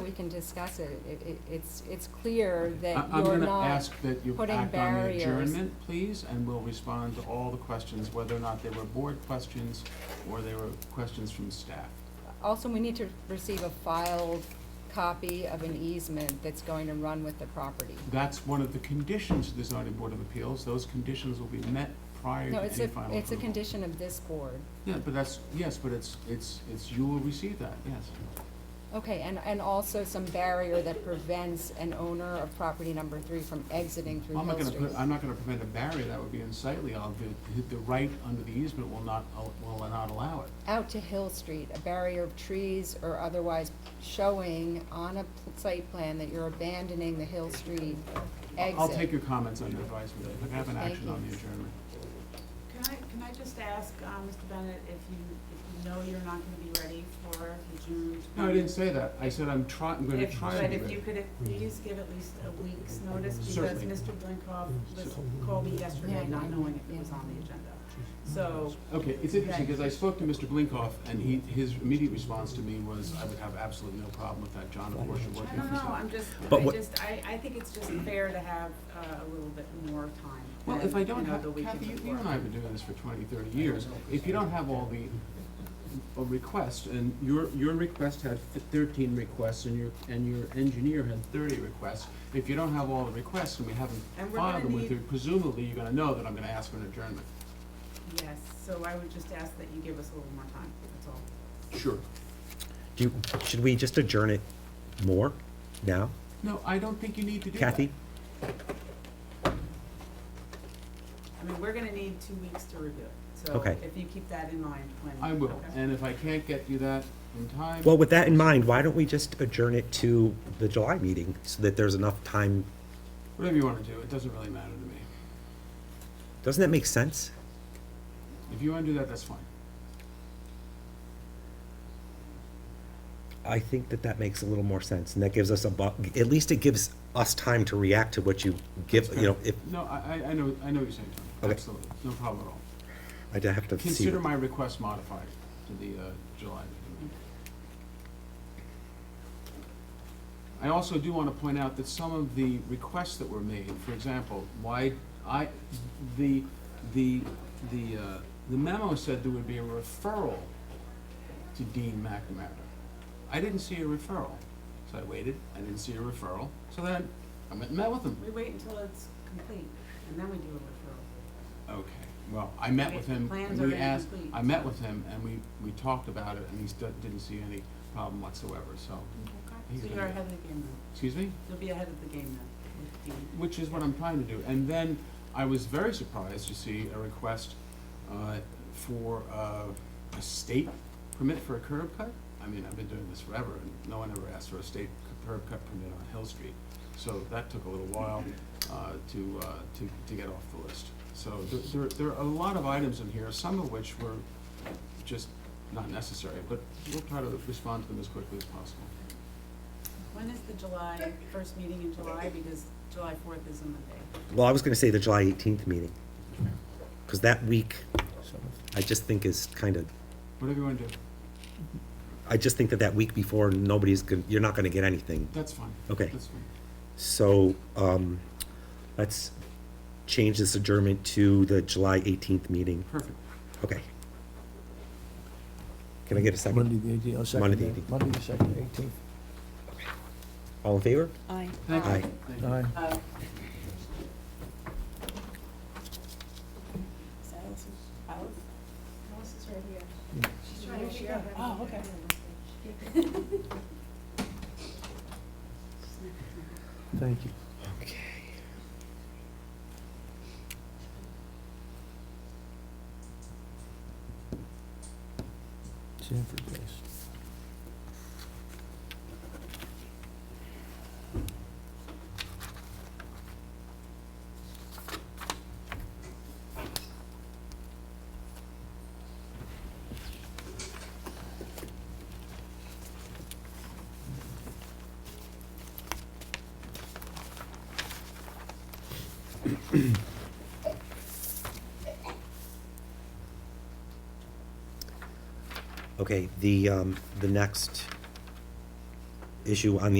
we can discuss it. It, it, it's, it's clear I- that you're I'm gonna not, ask that you putting act on the barriers. adjournment, please, and we'll respond to all the questions, whether or not they were board questions or they were questions from staff. also, we need to receive a filed copy of an easement that's going to run with the property. That's one of the conditions of the zoning board of appeals. Those conditions will be met prior to No, any it's a, final it's a approval. condition of this board. Yeah, but that's, yes, but it's, it's, it's, you will receive that, yes. Okay, and, and also some barrier that prevents an owner of property number three from exiting through Well, I'm not Hill gonna Street. put, I'm not gonna prevent a barrier, that would be unsightly, I'll, the, the right under the easement will not, al- will not allow it. Out to Hill Street, a barrier of trees or otherwise showing on a pl- site plan that you're abandoning the Hill Street exit. I'll take your comments under advisement, if I have an Thank action on you. the adjournment. Can I, can I just ask, uh, Mr. Bennett, if you, if you know you're not gonna be ready for the June? No, I didn't 20th? say that, I said I'm try, I'm gonna If, try to but do if it. you could, please give at least a week's notice, because Certainly. Mm-hmm. Mr. Blinkoff was, called me yesterday, Yeah, not yeah, knowing if yeah. it was on the agenda. Mm-hmm. So, Okay, it's interesting, Okay. because I spoke to Mr. Blinkoff, and he, his immediate response to me was, I would have absolutely no problem with that, John, of course, you're I working don't for know, I'm something. just, But I what- just, I, I think it's just fair to have, uh, a little bit more time Well, if I than, don't you know, have, the weekend Kathy, you- before. you and I have been doing this for 20, 30 years, if you don't have all the uh, requests, and your, your request had th- thirteen requests, and your, and your engineer had thirty requests, if you don't have all the requests and we haven't And we're filed gonna them with need- you, presumably you're gonna know that I'm gonna ask for an adjournment. Yes, so I would just ask that you give us a little more time, that's all. Sure. Do, you- should we just adjourn it more now? No, I don't think you need to do that. Kathy? I mean, we're gonna need two weeks to review it, so Okay. if you keep that in mind when. I will, okay. and if I can't get you that in time. Well, with that in mind, why don't we just adjourn it to the July meeting so that there's enough time? Whatever you want to do, it doesn't really matter to me. Doesn't that make sense? If you want to do that, that's fine. I think that that makes a little more sense and that gives us a bu- at least it gives us time to react to what you give, you know, if, No, I, I- I know, I know what you're saying, Tom. Okay. Absolutely, no problem at all. I'd have to see. Consider my request modified to the uh, July meeting. I also do want to point out that some of the requests that were made, for example, why, I, the, the, the uh, the memo said there would be a referral to Dean McNamara. I didn't see a referral, so I waited, I didn't see a referral, so then I went and met with him. We wait until it's complete, and then we do a referral. Okay, well, I met with him, Plans and we are asked, incomplete. I met with him, and we, we talked about it, and he stu- didn't see any problem whatsoever, so, He's So gonna you're do ahead of the game then. excuse me? You'll be ahead of the game then. with the- Which is what I'm trying to do, and then I was very surprised to see a request, uh, for, uh, a state permit for a curb cut. I mean, I've been doing this forever, and no one ever asked for a state c- curb cut permit on Hill Street, so that took a little while, uh, to, uh, to, to get off the list. So there, there, there are a lot of items in here, some of which were just not necessary, but we'll try to respond to them as quickly as possible. When is the July, first meeting in July, because July fourth is a Monday. Well, I was gonna say the July eighteenth meeting. Cause that week, I just think is kind of, Whatever you wanna do, I just think that that week before, nobody's gonna, you're not gonna get anything. that's fine. Okay. That's fine. So, um, let's change this adjournment to the July eighteenth meeting. Perfect. Okay. Can I get a second? Monday the eighteenth, I'll second Monday the that. 18th. Monday the second, eighteenth. All in favor? Aye. Thank you. Aye. Thank you. Aye. Uh, She's trying to figure out how to Oh, get okay. back in. Thank you. Okay. Sanford Place. Okay, the, um, the next issue on the